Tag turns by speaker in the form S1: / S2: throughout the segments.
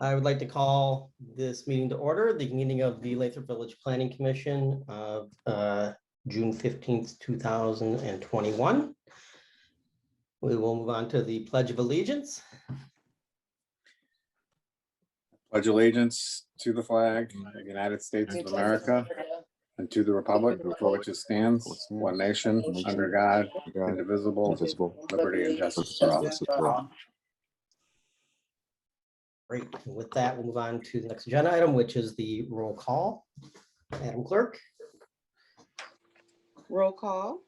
S1: I would like to call this meeting to order, the meeting of the Lathrop Village Planning Commission of uh, June fifteenth, two thousand and twenty-one. We will move on to the Pledge of Allegiance.
S2: Pledge allegiance to the flag, of the United States of America, and to the republic for which it stands, one nation, under God, indivisible, with liberty and justice for all.
S1: Great. And With that, we'll move on to the next agenda item, which is the roll call. Madam Clerk,
S3: Roll call.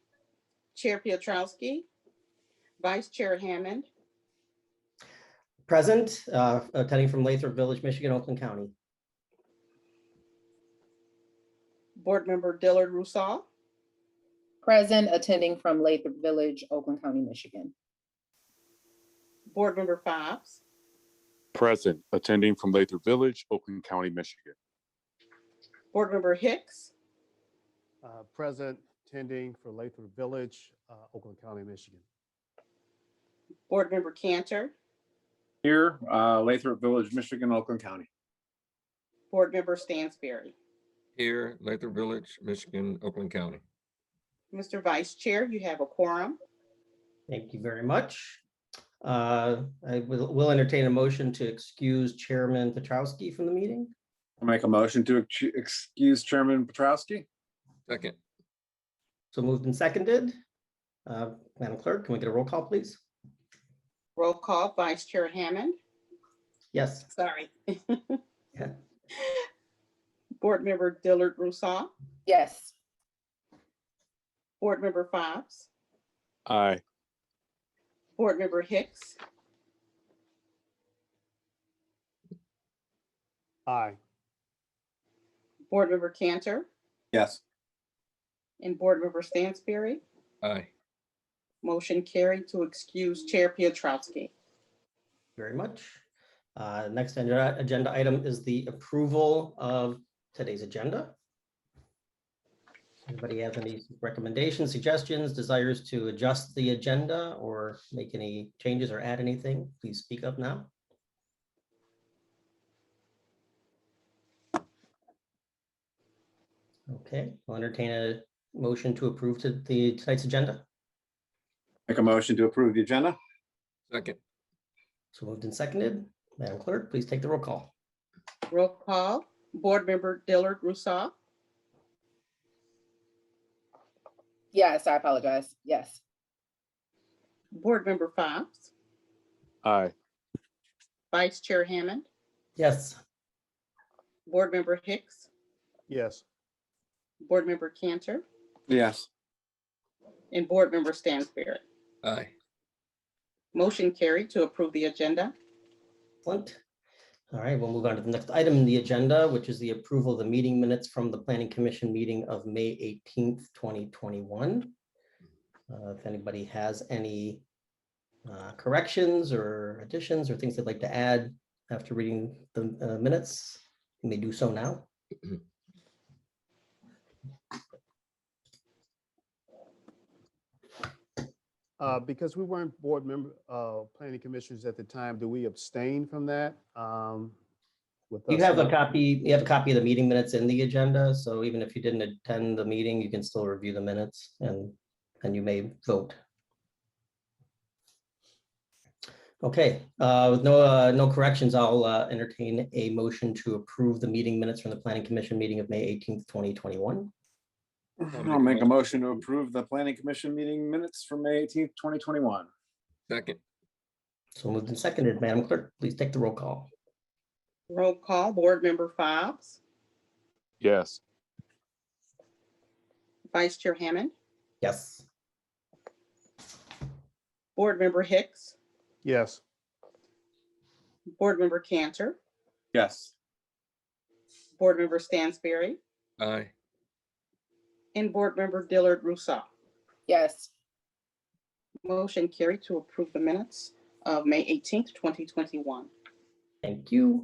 S3: Chair Pietrowski. Vice Chair Hammond.
S1: present, uh, attending from Lathrop Village, Michigan, Oakland County.
S3: Board Member Dillard Rousseau.
S4: Present, attending from Lathrop Village, Oakland County, Michigan.
S3: Board Member Fobbs.
S5: Present, attending from Lathrop Village, Oakland County, Michigan.
S3: Board Member Hicks.
S6: uh, present, attending for Lathrop Village, uh, Oakland County, Michigan.
S3: Board Member Cantor.
S2: Here, uh, Lathrop Village, Michigan, Oakland County.
S3: Board Member Stansberry.
S7: Here, Lathrop Village, Michigan, Oakland County.
S3: Mr. Vice Chair, you have a quorum.
S1: Thank you very much. Uh, I will will entertain a motion to excuse Chairman Petrowski from the meeting.
S2: I'll Make a motion to ex- excuse Chairman Petrowski.
S7: Second,
S1: So moved and seconded. Uh, Madam Clerk, can we get a roll call, please?
S3: Roll call. Vice Chair Hammond.
S1: Yes,
S3: Sorry.
S1: Yeah.
S3: Board Member Dillard Rousseau.
S4: Yes,
S3: Board Member Fobbs.
S5: Aye.
S3: Board Member Hicks.
S6: Aye,
S3: Board Member Cantor.
S2: Yes.
S3: And Board Member Stansberry.
S7: aye.
S3: Motion carried to excuse Chair Pietrowski.
S1: very much. Uh, Next agenda agenda item is the approval of today's agenda. Anybody have any recommendations, suggestions, desires to adjust the agenda or make any changes or add anything? Please speak up now. Okay, I'll entertain a motion to approve to the tonight's agenda.
S2: Make a motion to approve the agenda.
S7: Second,
S1: So moved and seconded. Madam Clerk, please take the roll call.
S3: Roll call, Board Member Dillard Rousseau,
S4: yes, I apologize. Yes,
S3: Board Member Fobbs,
S5: Aye.
S3: Vice Chair Hammond,
S1: Yes.
S3: Board Member Hicks,
S6: yes,
S3: Board Member Cantor,
S2: Yes.
S3: and Board Member Stansberry.
S7: aye.
S3: Motion carried to approve the agenda.
S1: Excellent. All right, we'll move on to the next item in the agenda, which is the approval of the meeting minutes from the Planning Commission meeting of May eighteenth, twenty twenty-one. Uh, If anybody has any uh, corrections or additions or things they'd like to add after reading the uh, minutes, you may do so now.
S6: uh, because we weren't board member, uh, planning commissioners at the time, do we abstain from that? Um, with
S1: You
S6: us
S1: have a
S6: not-
S1: copy, you have a copy of the meeting minutes in the agenda, so even if you didn't attend the meeting, you can still review the minutes and, and you may vote. Okay, uh, with no, uh, no corrections, I'll uh, entertain a motion to approve the meeting minutes from the planning commission meeting of May eighteenth, twenty twenty-one.
S2: I'll make a motion to approve the planning commission meeting minutes for May eighteenth, twenty twenty-one.
S7: Second,
S1: So moved and seconded, Madam Clerk, please take the roll call.
S3: Roll call, Board Member Fobbs,
S5: Yes.
S3: Vice Chair Hammond,
S1: Yes,
S3: Board Member Hicks,
S6: Yes,
S3: Board Member Cantor,
S2: Yes.
S3: Board Member Stansberry,
S7: aye.
S3: and Board Member Dillard Rousseau.
S4: yes,
S3: Motion carried to approve the minutes of May eighteenth, twenty twenty-one.
S1: thank you.